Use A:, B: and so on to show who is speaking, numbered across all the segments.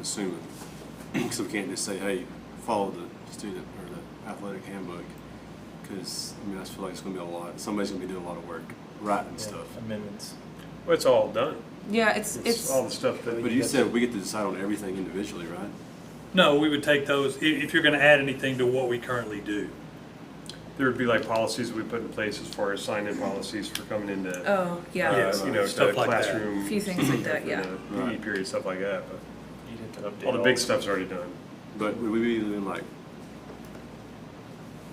A: assuming. so we can't just say, hey, follow the student or the athletic handbook. Because, I mean, I just feel like it's going to be a lot. Somebody's going to be doing a lot of work writing stuff.
B: Amendments.
C: Well, it's all done.
D: Yeah, it's,
C: It's
D: it's,
C: all the stuff that.
A: But you said we get to decide on everything individually, right?
E: No, we would take those, i- if you're gonna add anything to what we currently do.
C: There would be like policies we put in place as far as sign-in policies for coming into, uh,
D: oh, yeah,
E: Yes.
C: you know, to
E: Stuff like that.
C: classroom.
D: Few things like
C: you know,
D: that,
C: for
D: yeah.
C: the PD period, stuff like that, but
B: You'd have to update
C: all the big stuff's already done.
A: But would we be doing like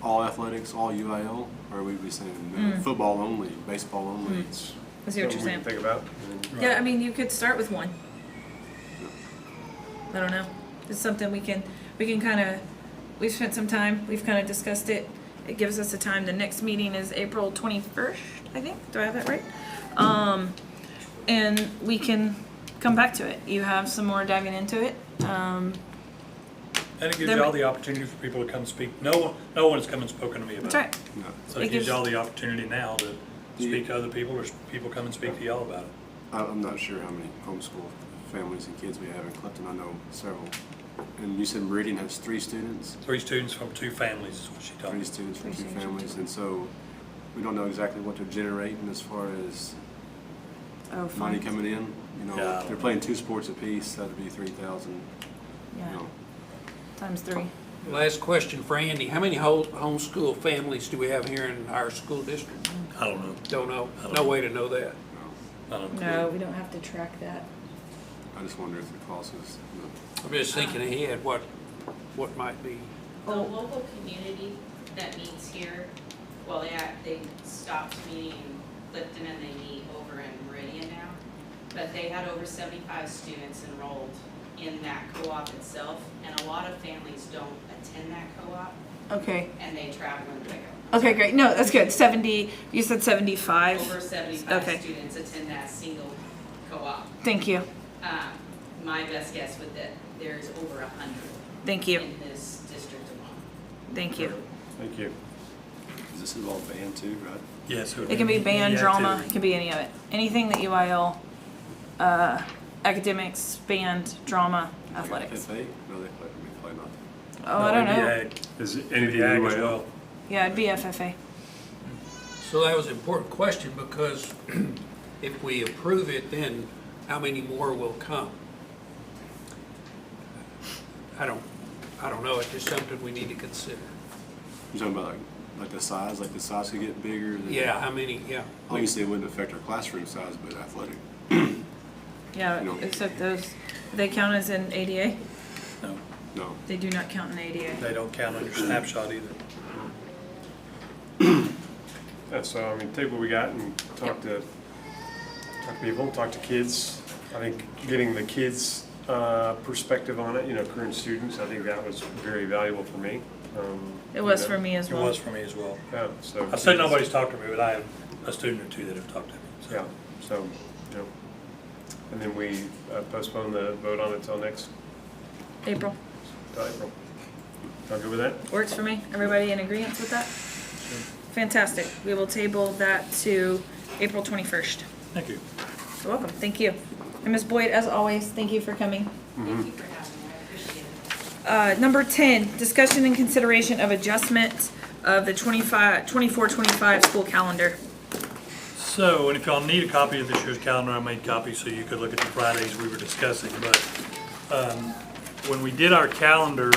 A: all athletics, all UIL? Or would we be saying no, football only, baseball only?
D: I see what
C: Something
D: you're
C: we can
D: saying.
C: Think about. and then-
D: Yeah, I mean, you could start with one. I don't know. It's something we can, we can kind of, we've spent some time, we've kind of discussed it. It gives us a time. The next meeting is April 21st, I think. Do I have that right? Um, and we can come back to it. You have some more diving into it. Um,
E: And it gives
D: Then-
E: you all the opportunity for people to come speak. No, one, no one's come and spoken to me about
D: that's
E: it.
D: right.
A: No.
E: So
D: It
E: it gives
D: gives-
E: you all the opportunity now to
A: Do you-
E: speak to other people or s- people come and speak to y'all about it.
A: I, I'm not sure how many homeschool families and kids we have in Clifton. I know several. And you said Meridian has three students,
E: Three students from two families is what she told
A: three
E: me.
A: students from two
D: Three students.
A: families, and so we don't know exactly what they're generating as far as
D: Oh,
A: money
D: fun.
A: coming in. You know,
E: Yeah.
A: if they're playing two sports apiece, that'd be three thousand. You
D: Yeah,
A: know,
D: times three.
F: Last question for Andy. How many ho- homeschool families do we have here in our school district?
E: I don't know.
F: Don't know.
E: don't
F: No
E: know.
F: way to know that.
A: you know.
E: I don't
D: No,
E: know.
D: we don't have to track that.
A: I just wonder if the cost is. You know,
F: I'm just thinking ahead, what, what might be.
G: The local community that meets here, well, they, act- they stopped meeting Clifton and they meet over in Meridian now. But they had over seventy-five students enrolled in that co-op itself, and a lot of families don't attend that co-op,
D: Okay.
G: and they travel and pick up.
D: Okay, great. No, that's good. Seventy. You said seventy-five.
G: Over seventy-five
D: Okay.
G: students attend that single co-op.
D: Thank you.
G: Um, my best guess would that there's over a hundred
D: Thank you.
G: in this district alone.
D: Thank you.
C: Thank you.
A: does this involve band too, right?
E: Yes. would E
D: It can be band,
E: any
D: drama. It
E: activity.
D: can be any of it. Anything that UIL, uh, academics, band, drama, athletics.
A: If they, no, they play. I mean, play nothing.
D: Oh, I don't
E: No, E it'd be
D: know.
E: ag.
C: Is it
E: It'd
C: anything
E: be ag as
C: UIL?
E: well.
D: Yeah, it'd be FFA.
F: So that was an important question because if we approve it, then how many more will come? I don't, I don't know. It's just something we need to consider.
A: You're talking about like, like the size, like the size could get bigger. than-
F: Yeah, how many, yeah.
A: Obviously, it wouldn't affect our classroom size, but athletic.
D: Yeah,
A: No.
D: except those, they count as in ADA.
E: No,
A: No.
D: They do not count in ADA.
E: they don't count on your snapshot either.
C: Yeah, so I mean, take what we got and talk to, talk to people, talk to kids. I think getting the kids' uh, perspective on it, you know, current students, I think that was very valuable for me. Um,
D: It was
C: you
D: for
C: know,
D: me as
E: It
D: well.
E: was for me as well.
C: Yeah, Oh, so.
E: I said nobody's talked to me, but I have a student or two that have talked to me. so.
C: Yeah, so, you know, and then we uh, postpone the vote on it till next,
D: April
C: till April. Y'all good with that?
D: works for me. Everybody in agreement with that? Fantastic. We will table that to April twenty-first.
E: Thank you.
D: You're welcome. Thank you. And Ms. Boyd, as always, thank you for coming.
G: Thank you for having me, I appreciate it.
D: Uh, number ten, discussion and consideration of adjustment of the 25 24-25 school calendar.
E: So, and if y'all need a copy of this year's calendar, I made copies so you could look at the Fridays we were discussing, but, um, when we did our calendar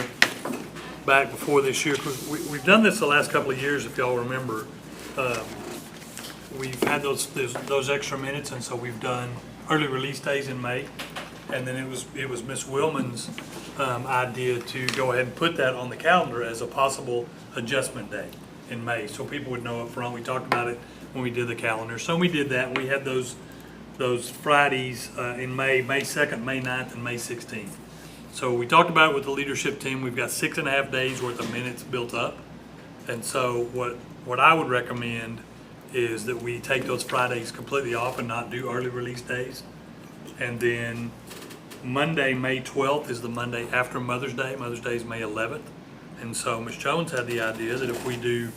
E: back before this year, 'cause we, we've done this the last couple of years, if y'all remember. um, We've had those, those, those extra minutes, and so we've done early release days in May. And then it was, it was Ms. Willman's, um, idea to go ahead and put that on the calendar as a possible adjustment day in May, so people would know up front. We talked about it when we did the calendar, so we did that. We had those, those Fridays, uh, in May, May second, May 9th, and May sixteenth. So we talked about it with the leadership team. We've got six and a half days worth of minutes built up. And so what, what I would recommend is that we take those Fridays completely off and not do early release days. And then Monday, May 12th is the Monday after Mother's Day. Mother's Day is May 11th. And so Ms. Jones had the idea that if we do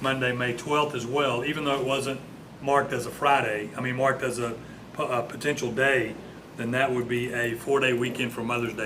E: Monday, May 12th as well, even though it wasn't marked as a Friday, I mean, marked as a, po- a potential day, then that would be a four-day weekend for Mother's Day